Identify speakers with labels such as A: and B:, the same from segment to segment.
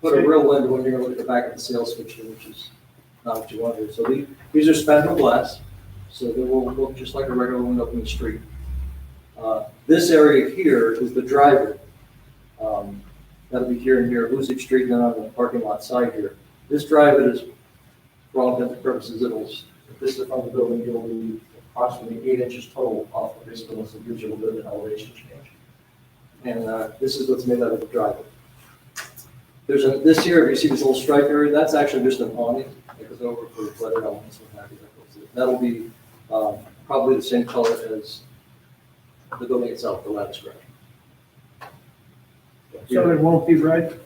A: put a real window in here, look at the back of the sales picture, which is not what you want here. So the- these are spandrel glass, so they will look just like a regular window from the street. Uh, This area here is the driveway. Um, That'll be here and here, Hoosick Street, then on the parking lot side here. This driveway is, for all intents and purposes, it'll,
B: This is from the building, you'll be approximately eight inches total off of this building, so it gives you a little bit of elevation change.
A: and uh, this is what's made out of the driveway. There's a, this here, if you see this little stripe area, that's actually just an awning that goes over for the flooded elements and happy that goes in. That'll be um, probably the same color as the building itself, the lattice structure.
C: So it won't be red?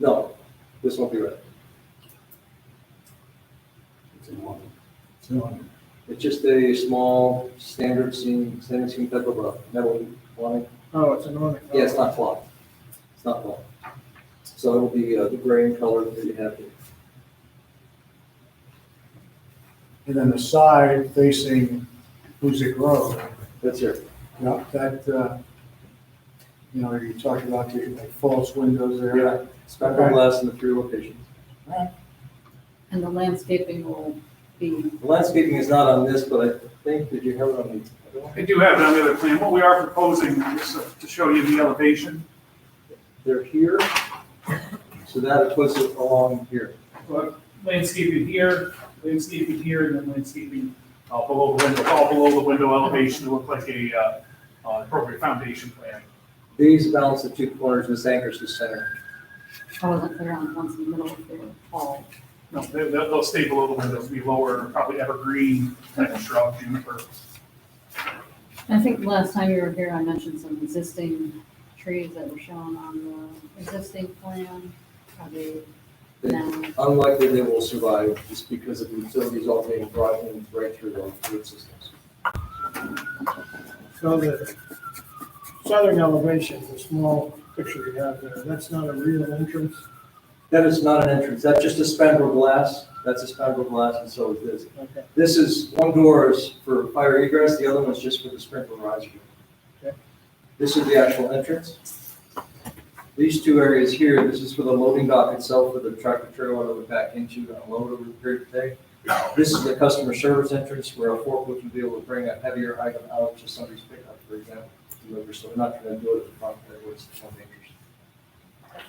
A: No, this won't be red. It's just a small standard seam, standard seam type of a metal awning.
C: Oh, it's an awning.
A: Yeah, it's not flawed. It's not flawed. So it'll be uh, the graying color that you have here.
D: And then the side facing Hoosick Road,
A: That's here.
D: now that, uh, you know, you talked about the like, false windows there.
A: Yeah, spectrum glass in the three locations.
E: And the landscaping will be,
A: The Landscaping is not on this, but I think, did you have it on the other one?
F: I do have it on the other plan. What we are proposing is to show you the elevation.
A: They're here. So that puts it along here.
F: Landscaping here, landscaping here, and then landscaping uh, below the window, all below the window elevation to look like a uh, uh, appropriate foundation plan.
A: These balance the two corners, this anchors the center.
E: I wasn't clear on the ones in the middle of the hall.
F: No, they- they'll they'll stay below the windows, be lower, probably evergreen, kind of shrub, juniper.
E: I think last time you were here, I mentioned some existing trees that were shown on the existing plan. Are they now,
A: Unlikely they will survive just because of the utilities all being brought in right through the root systems.
C: So the southern elevation, the small picture you have there, that's not a real entrance?
A: That is not an entrance. That's just a spandrel glass. That's a spandrel glass and so is this.
C: Okay.
A: This is, one door is for fire egress, the other one's just for the sprinkler riser.
C: Okay.
A: This is the actual entrance. These two areas here, this is for the loading dock itself, for the tractor trailer that we back into and unload over the period of day. This is the customer service entrance where a forklift would be able to bring a heavier item out to somebody's pickup, for example. deliver. So we're not going to do it at the front there where it's so dangerous.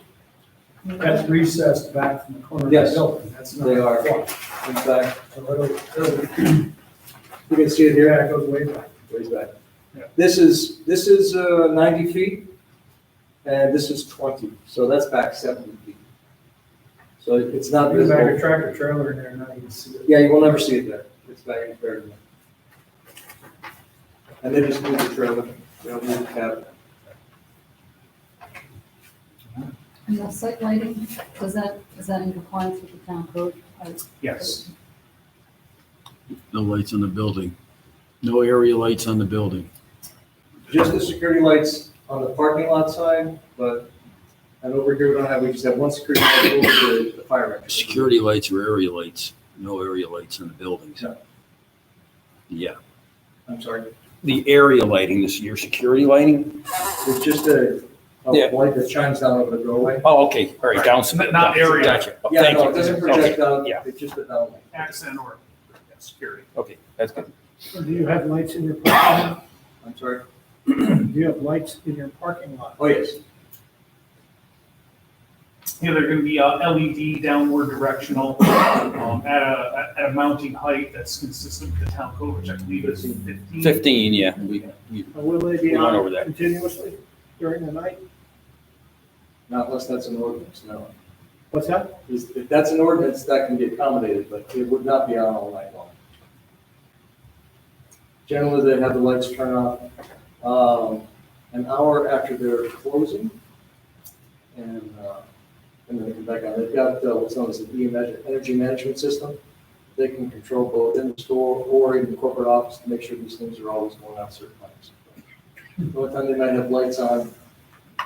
C: That's recessed back from the corner of
A: Yes.
C: the building. That's not.
A: They are, in fact,
C: So it'll- it'll-
A: you can see it here.
C: Yeah, it goes way back.
A: Raise that.
F: Yeah.
A: This is, this is uh, 90 feet, and this is 20, so that's back 70 feet. So it- it's not
C: You back a
A: visible.
C: tractor trailer in there, now you can see it.
A: Yeah, you will never see it there. It's back in there. And they just move the trailer, they'll move the cab.
E: and the site lighting, is that, is that in compliance with the town code? I-
F: Yes.
G: No lights on the building. No area lights on the building.
A: Just the security lights on the parking lot side, but, and over here, we don't have, we just have one security light over the- the fire exit.
G: Security lights or area lights. No area lights on the buildings.
A: No.
G: Yeah.
A: I'm sorry.
G: The area lighting, this, your security lighting?
A: It's just a,
G: Yeah.
A: a light that shines down over the doorway.
G: Oh, okay, all right, down.
F: Not- not area.
G: Gotcha. Oh,
A: Yeah,
G: Thank
A: no,
G: you.
A: it doesn't
G: Okay,
A: project out,
G: yeah.
A: it's just a downlight.
F: Accent or yeah, security.
G: Okay, that's good.
C: So Do you have lights in your parking
A: I'm sorry.
C: lot? Do you have lights in your parking lot?
A: Oh, yes.
F: Yeah, they're gonna be uh, LED downward directional um, at a, at a mounting height that's consistent with the town code, which I believe is fifteen.
G: Fifteen, yeah, we, we
C: Or Will they be
G: We went
C: on
G: over that.
C: continuously during the night?
A: Not unless that's an ordinance, no.
C: What's that?
A: Is- If that's an ordinance, that can be accommodated, but it would not be on all night long. Generally, they have the lights turn off um, an hour after they're closing. And, uh, and then they come back on. They've got uh, what's known as an EMS, energy management system. They can control both in the store or in the corporate office to make sure these things are always going out certain times. The only time they might have lights on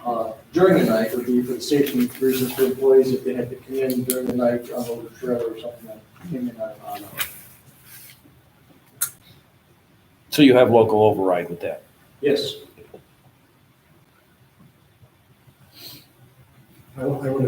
A: uh, during the night would be for the safety reasons for employees if they had to come in during the night on a trailer or something that came in on. on-
H: So you have local override with that?
A: Yes.
D: I would I would